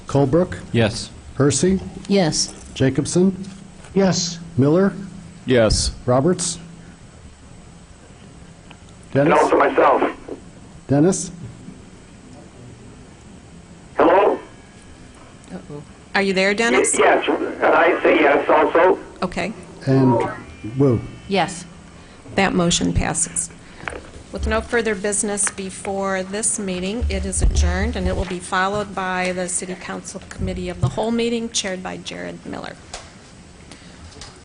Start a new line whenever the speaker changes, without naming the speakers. Colbrook,
Yes.
Hersey,
Yes.
Jacobson,
Yes.
Miller,
Yes.
Roberts.
And
Dennis?
also myself.
Dennis?
Hello?
Are you there,
Y-
Dennis?
Yes, and I say yes also.
Okay,
And Wu?
Yes.
that motion passes. With no further business before this meeting, it is adjourned, and it will be followed by the City Council Committee of the Whole meeting chaired by Jared Miller.